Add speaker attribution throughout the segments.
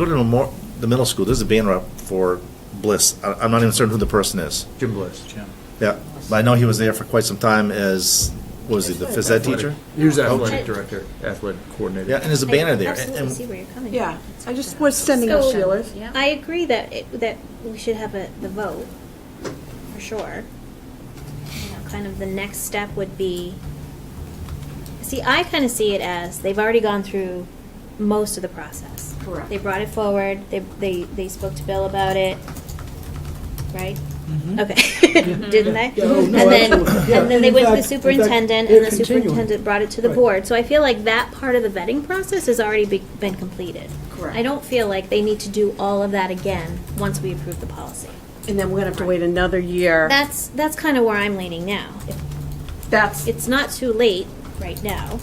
Speaker 1: Go to the more, the middle school, there's a banner up for Bliss. I, I'm not even certain who the person is.
Speaker 2: Jim Bliss. Jim.
Speaker 1: Yeah, but I know he was there for quite some time as, what was he, the phys ed teacher? Oh.
Speaker 2: He was athletic director, athletic coordinator.
Speaker 1: Yeah, and there's a banner there. and-
Speaker 3: Absolutely see
Speaker 1: and-
Speaker 3: where you're coming from.
Speaker 4: Yeah, I just was sending out
Speaker 3: So,
Speaker 4: feelers.
Speaker 3: I agree that, it- that we should have a, the vote, for sure. You know, Kind of the next step would be, see, I kind of see it as, they've already gone through most of the process.
Speaker 5: Correct.
Speaker 3: They brought it forward, they, they, they spoke to Bill about it, right? Okay, didn't they?
Speaker 6: Yeah, oh,
Speaker 3: And
Speaker 6: no,
Speaker 3: then,
Speaker 6: absolutely. Yeah,
Speaker 3: and then
Speaker 6: and
Speaker 3: they
Speaker 6: in
Speaker 3: went to
Speaker 6: fact-
Speaker 3: the
Speaker 6: in fact,
Speaker 3: superintendent,
Speaker 6: they're
Speaker 3: and the
Speaker 6: continuing.
Speaker 3: superintendent brought it to the
Speaker 6: Right.
Speaker 3: board. So I feel like that part of the vetting process has already be- been completed.
Speaker 5: Correct.
Speaker 3: I don't feel like they need to do all of that again once we approve the policy.
Speaker 4: And then we're gonna have to wait another year.
Speaker 3: That's, that's kind of where I'm leaning now. If-
Speaker 4: That's,
Speaker 3: It's not too late right now.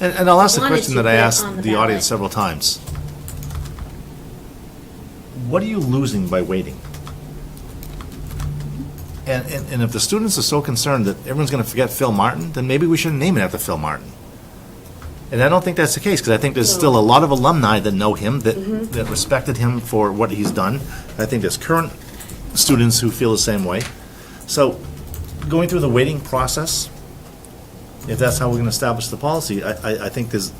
Speaker 1: And, and I'll ask the
Speaker 3: Wanted
Speaker 1: question
Speaker 3: to
Speaker 1: that I
Speaker 3: put
Speaker 1: asked
Speaker 3: on the
Speaker 1: the audience
Speaker 3: ballot.
Speaker 1: several times. What are you losing by waiting? And, and, and if the students are so concerned that everyone's gonna forget Phil Martin, then maybe we shouldn't name it after Phil Martin. And I don't think that's the case, because I think there's still a lot of alumni that know him, that,
Speaker 3: Mm-hmm.
Speaker 1: that respected him for what he's done. I think there's current students who feel the same way. So, going through the waiting process, if that's how we're gonna establish the policy, I, I, I think there's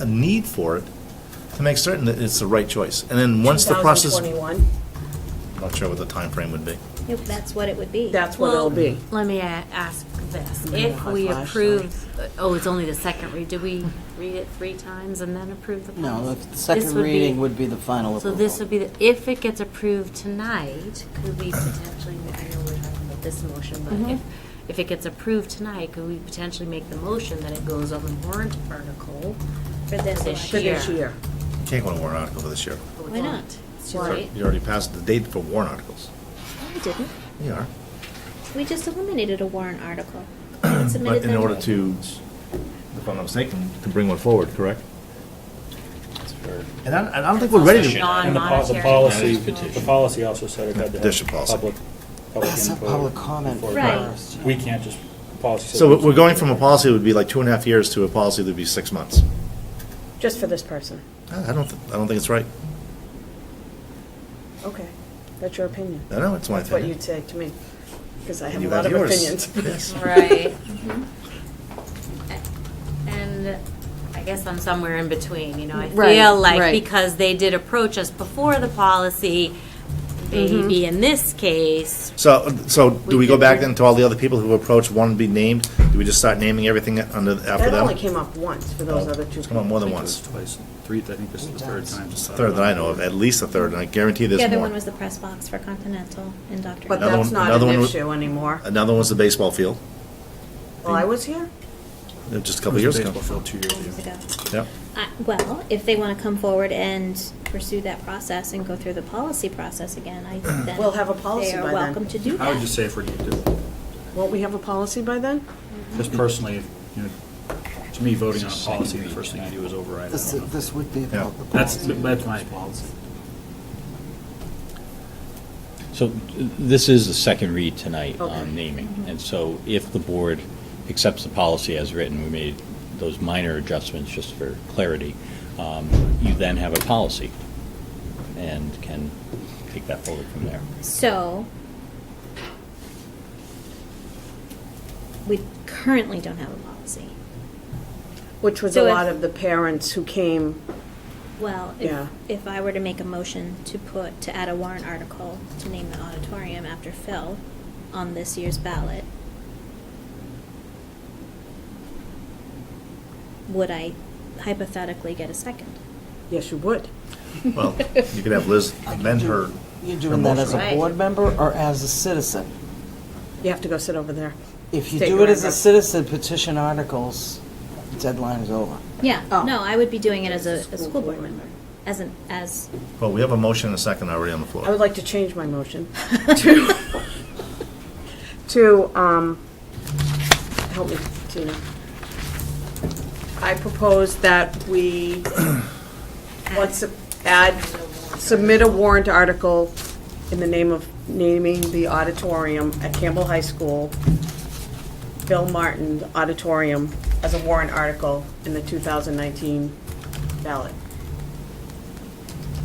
Speaker 1: a need for it to make certain that it's the right choice. And then once the process, I'm
Speaker 4: 2021,
Speaker 1: not sure what the time frame would be.
Speaker 3: If That's what it would be.
Speaker 4: that's what it'll be.
Speaker 5: Let me a- ask this.
Speaker 4: gonna
Speaker 5: If
Speaker 4: hot
Speaker 5: we
Speaker 4: flash,
Speaker 5: approve, oh, it's only the second read, do we read it three times and then approve the policy?
Speaker 7: No, the
Speaker 5: This
Speaker 7: second
Speaker 5: would be-
Speaker 7: reading would be the final
Speaker 5: So
Speaker 7: approval.
Speaker 5: this would be, the if it gets approved tonight, could we potentially, I know we're talking about this motion,
Speaker 4: Mm-hmm.
Speaker 5: but if, if it gets approved tonight, could we potentially make the motion that it goes on the warrant article?
Speaker 3: For this
Speaker 5: this
Speaker 3: election.
Speaker 4: For this
Speaker 5: Yeah.
Speaker 4: year.
Speaker 1: You Can't go to warrant article for this year.
Speaker 3: Why not?
Speaker 5: It's too
Speaker 1: You
Speaker 5: late.
Speaker 1: already passed the date for warrant articles.
Speaker 3: We didn't.
Speaker 1: You are.
Speaker 3: We just eliminated a warrant article. We submitted
Speaker 1: But in
Speaker 3: them.
Speaker 1: order to, if I'm not mistaken, to bring one forward, correct? And I, and I don't think we're ready
Speaker 5: Petition.
Speaker 1: to.
Speaker 8: And the po- the
Speaker 5: Non-monetary.
Speaker 8: policy,
Speaker 5: That is
Speaker 8: the policy also said it had to
Speaker 1: Petition
Speaker 8: have
Speaker 1: policy.
Speaker 8: public,
Speaker 9: Oh,
Speaker 8: public
Speaker 7: That's a
Speaker 8: input.
Speaker 7: public comment
Speaker 8: before-
Speaker 3: Right.
Speaker 7: first.
Speaker 8: We can't just, policy. said
Speaker 1: So
Speaker 8: we
Speaker 1: we're
Speaker 8: can't.
Speaker 1: going from a policy that would be like two and a half years to a policy that would be six months.
Speaker 4: Just for this person.
Speaker 1: I I don't, th- I don't think it's right.
Speaker 4: Okay, that's your opinion.
Speaker 1: I know, it's my
Speaker 4: That's what
Speaker 1: opinion.
Speaker 4: you'd say to me, because I have a
Speaker 1: You
Speaker 4: lot of
Speaker 1: yours.
Speaker 4: opinions.
Speaker 1: Yes.
Speaker 5: Right.
Speaker 4: Mm-hmm.
Speaker 5: And I guess I'm somewhere in between, you know, I
Speaker 4: Right,
Speaker 5: feel like
Speaker 4: right.
Speaker 5: because they did approach us before the policy,
Speaker 4: Mm-hmm.
Speaker 5: maybe in this case,
Speaker 1: So, so do we go
Speaker 5: could-
Speaker 1: back then to all the other people who approached, one to be named? Do we just start naming everything under, after
Speaker 4: That
Speaker 1: them?
Speaker 4: only came up once for those
Speaker 1: Oh,
Speaker 4: other two.
Speaker 1: It's come up more than once.
Speaker 2: Twice, three, I think this is the third time.
Speaker 1: It's the third that I know of, at least a third, and I guarantee there's
Speaker 3: The
Speaker 1: more.
Speaker 3: other one was the press box for Continental and Dr.
Speaker 4: But
Speaker 1: Another
Speaker 4: that's
Speaker 1: one-
Speaker 4: not
Speaker 1: another one
Speaker 4: an
Speaker 1: wa-
Speaker 4: issue anymore.
Speaker 1: Another one was the baseball field,
Speaker 4: Well, I was here.
Speaker 1: uh, just a couple years ago.
Speaker 2: Baseball field two years
Speaker 3: years
Speaker 2: ago.
Speaker 3: ago.
Speaker 1: Yep.
Speaker 3: I- Well, if they want to come forward and pursue that process and go through the policy process again, I then.
Speaker 4: We'll have a policy by
Speaker 3: They
Speaker 4: then.
Speaker 3: are welcome to do that.
Speaker 2: I would just say if we're,
Speaker 4: Won't we have a policy by then?
Speaker 2: just personally, you know, to me, voting on a policy, the first thing you do is override. it.
Speaker 7: This,
Speaker 2: I don't know.
Speaker 7: this would be
Speaker 1: Yeah.
Speaker 7: about the
Speaker 2: That's,
Speaker 7: policy.
Speaker 2: that's my policy.
Speaker 9: So this is the second read tonight
Speaker 4: Okay.
Speaker 9: on naming. And so if the board accepts the policy as written, we made those minor adjustments just for clarity, um, you then have a policy and can take that forward from there.
Speaker 3: So, we currently don't have a policy.
Speaker 4: Which was a
Speaker 3: So if-
Speaker 4: lot of the parents who came,
Speaker 3: Well,
Speaker 4: Yeah.
Speaker 3: if, if I were to make a motion to put, to add a warrant article to name the auditorium after Phil on this year's ballot, would I hypothetically get a second?
Speaker 4: yes, you would.
Speaker 1: Well, you could have Liz amend her.
Speaker 7: You're
Speaker 1: her
Speaker 7: doing that as
Speaker 1: motion.
Speaker 7: a board member or as a citizen?
Speaker 4: You have to go sit over there.
Speaker 7: If you
Speaker 4: Take
Speaker 7: do it as
Speaker 4: whatever.
Speaker 7: a citizen, petition articles, deadline is over.
Speaker 3: Yeah,
Speaker 4: Oh.
Speaker 3: no, I would be doing it as a, a school board member, as an, as,
Speaker 1: Well, we have a motion and a second already on the
Speaker 4: I would
Speaker 1: floor.
Speaker 4: like to change my motion to, to, um, help me, Tina. I propose that we, let's add, submit a warrant article in the name of naming the auditorium at Campbell High School, Bill Martin Auditorium, as a warrant article in the 2019 ballot.